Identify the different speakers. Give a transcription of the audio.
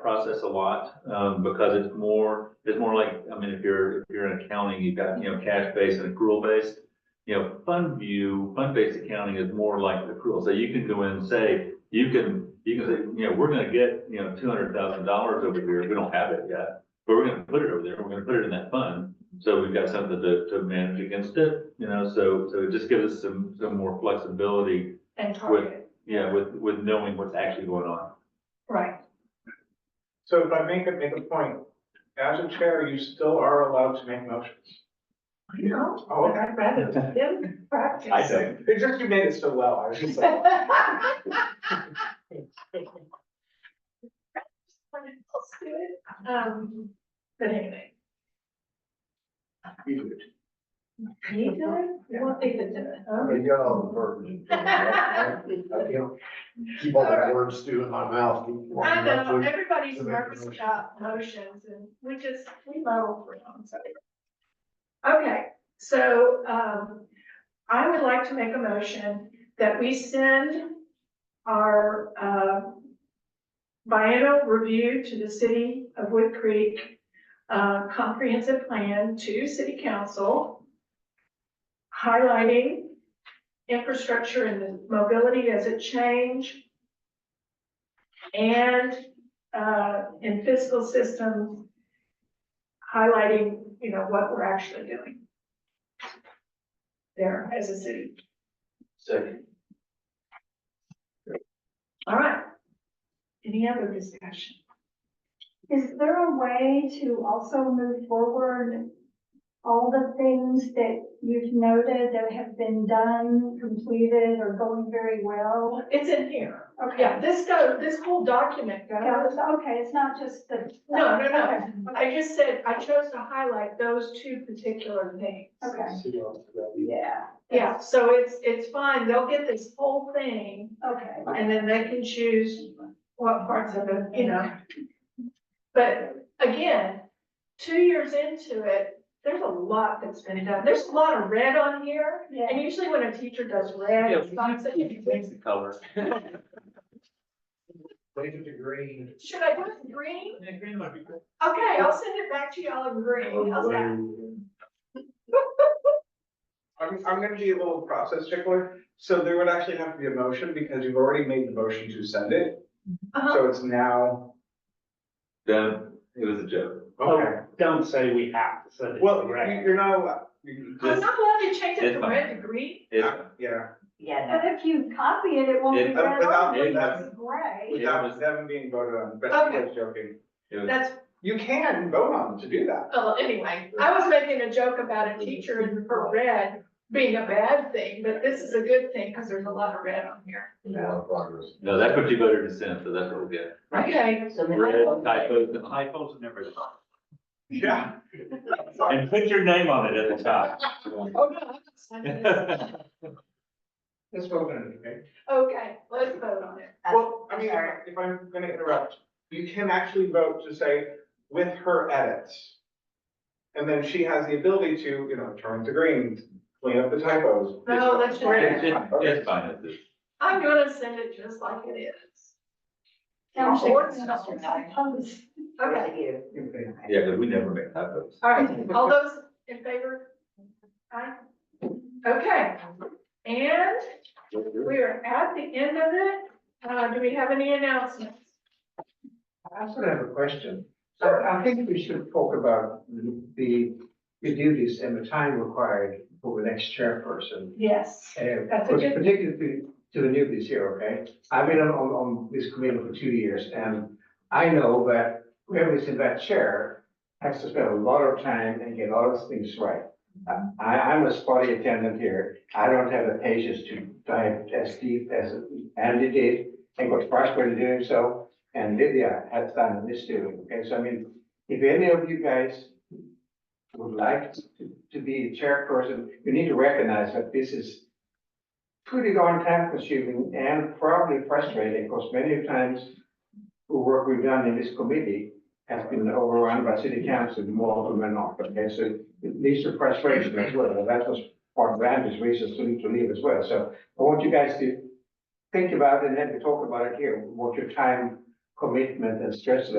Speaker 1: process a lot, um, because it's more, it's more like, I mean, if you're, if you're in accounting, you've got, you know, cash-based and accrual-based. You know, fund view, fund-based accounting is more like accrual, so you can go in and say, you can, you can say, you know, we're gonna get, you know, two hundred thousand dollars over here, we don't have it yet. But we're gonna put it over there, we're gonna put it in that fund, so we've got something to, to manage against it, you know, so, so it just gives us some, some more flexibility,
Speaker 2: and target,
Speaker 1: yeah, with, with knowing what's actually going on.
Speaker 2: right,
Speaker 3: So if I make a, make a point, as a chair, you still are allowed to make motions.
Speaker 2: you know,
Speaker 3: Oh, okay.
Speaker 2: I'd rather them practice.
Speaker 1: I don't.
Speaker 3: It's just you made it so well, I was just like.
Speaker 2: Um, but anyway,
Speaker 3: You do it.
Speaker 2: you do it, one thing to do it, huh?
Speaker 4: You got all the verbiage. I can't keep all the words stew in my mouth.
Speaker 2: I know, everybody's nervous about motions and we just, we muddle through them, so. Okay, so, um, I would like to make a motion that we send our, uh, biennial review to the city of Wood Creek, uh, comprehensive plan to city council, highlighting infrastructure and the mobility as a change, and uh, in fiscal systems, highlighting, you know, what we're actually doing there as a city.
Speaker 4: Second.
Speaker 2: All right. Any other discussion?
Speaker 5: Is there a way to also move forward all the things that you've noted that have been done, completed, or going very well?
Speaker 2: It's in here.
Speaker 5: Okay.
Speaker 2: Yeah, this go, this whole document
Speaker 5: Yeah,
Speaker 2: goes.
Speaker 5: it's- Okay, it's not just the.
Speaker 2: No, no, no.
Speaker 5: Okay,
Speaker 2: I just said, I chose to highlight those two particular things.
Speaker 5: Okay,
Speaker 4: See you on-
Speaker 5: yeah,
Speaker 2: Yeah, so it's, it's fine. They'll get this whole thing
Speaker 5: okay.
Speaker 2: And then they can choose what parts of it, you know. But again, two years into it, there's a lot that's been done. There's a lot of red on here.
Speaker 5: Yeah,
Speaker 2: And usually when a teacher does red, it's not such a.
Speaker 1: the color.
Speaker 4: Leave it to green.
Speaker 2: Should I do it in green?
Speaker 3: green might be good.
Speaker 2: Okay, I'll send it back to y'all in
Speaker 3: Oh,
Speaker 2: green. How's that?
Speaker 3: I'm, I'm gonna be a little process tickler, so there would actually have to be a motion, because you've already made the motion to send it,
Speaker 2: Uh-huh.
Speaker 3: so it's now.
Speaker 1: Then, it was a joke.
Speaker 3: Okay.
Speaker 6: don't say we have to send it.
Speaker 3: Well,
Speaker 6: to
Speaker 3: you-
Speaker 6: Rex.
Speaker 3: you're not allowed, you-
Speaker 2: I'm not allowed to change it
Speaker 1: It's
Speaker 2: from
Speaker 1: fine.
Speaker 2: red to green.
Speaker 1: It's-
Speaker 3: yeah,
Speaker 5: but if you copy it, it won't
Speaker 1: It-
Speaker 5: be
Speaker 3: uh,
Speaker 5: red
Speaker 3: without-
Speaker 5: on, it's
Speaker 3: without-
Speaker 5: gray.
Speaker 1: Yeah, it
Speaker 3: without
Speaker 1: was-
Speaker 3: them being voted on, but
Speaker 2: Okay.
Speaker 3: I was joking.
Speaker 1: it was-
Speaker 2: That's,
Speaker 3: You can vote on to do that.
Speaker 2: oh, anyway, I was making a joke about a teacher and her red being a bad thing, but this is a good thing because there's a lot of red on here.
Speaker 4: A lot of progress.
Speaker 1: No, that's what you voted to send, so that's what we'll get.
Speaker 2: Okay,
Speaker 1: Red typos, typos and everything.
Speaker 3: Yeah.
Speaker 1: And put your name on it at the top.
Speaker 2: oh no, I'm signing this.
Speaker 3: Let's vote on it, okay?
Speaker 2: okay, let's vote on it.
Speaker 3: Well, I mean,
Speaker 7: sorry.
Speaker 3: if I'm gonna interrupt, you can actually vote to say with her edits. And then she has the ability to, you know, turn to green, clean up the typos.
Speaker 2: No, that's
Speaker 1: It's,
Speaker 2: just,
Speaker 1: it's- it's fine, it's just-
Speaker 2: I'm gonna send it just like it is.
Speaker 5: Now,
Speaker 2: Or-
Speaker 5: it's-
Speaker 2: Okay,
Speaker 3: Okay.
Speaker 1: yeah, because we never make typos.
Speaker 2: all right, all those in favor? Aye. Okay, and we are at the end of it. Uh, do we have any announcements?
Speaker 7: I also have a question. So I think we should talk about the, the duties and the time required for the next chairperson.
Speaker 2: Yes.
Speaker 7: And
Speaker 2: That's a good-
Speaker 7: particularly to, to the newbies here, okay? I've been on, on, on this committee for two years and I know that whoever's in that chair has to spend a lot of time and get a lot of things right. I, I'm a spotty attendant here. I don't have the patience to dive as deep as Andy did and got frustrated doing so. And Lydia has done this too, okay, so I mean, if any of you guys would like to, to be the chairperson, you need to recognize that this is pretty darn time consuming and probably frustrating, because many times the work we've done in this committee has been overrun by city council more often than not, okay, so it leads to frustration as well, and that was part of Andy's reasons to to leave as well, so I want you guys to think about it and then we talk about it here, what your time commitment and stress level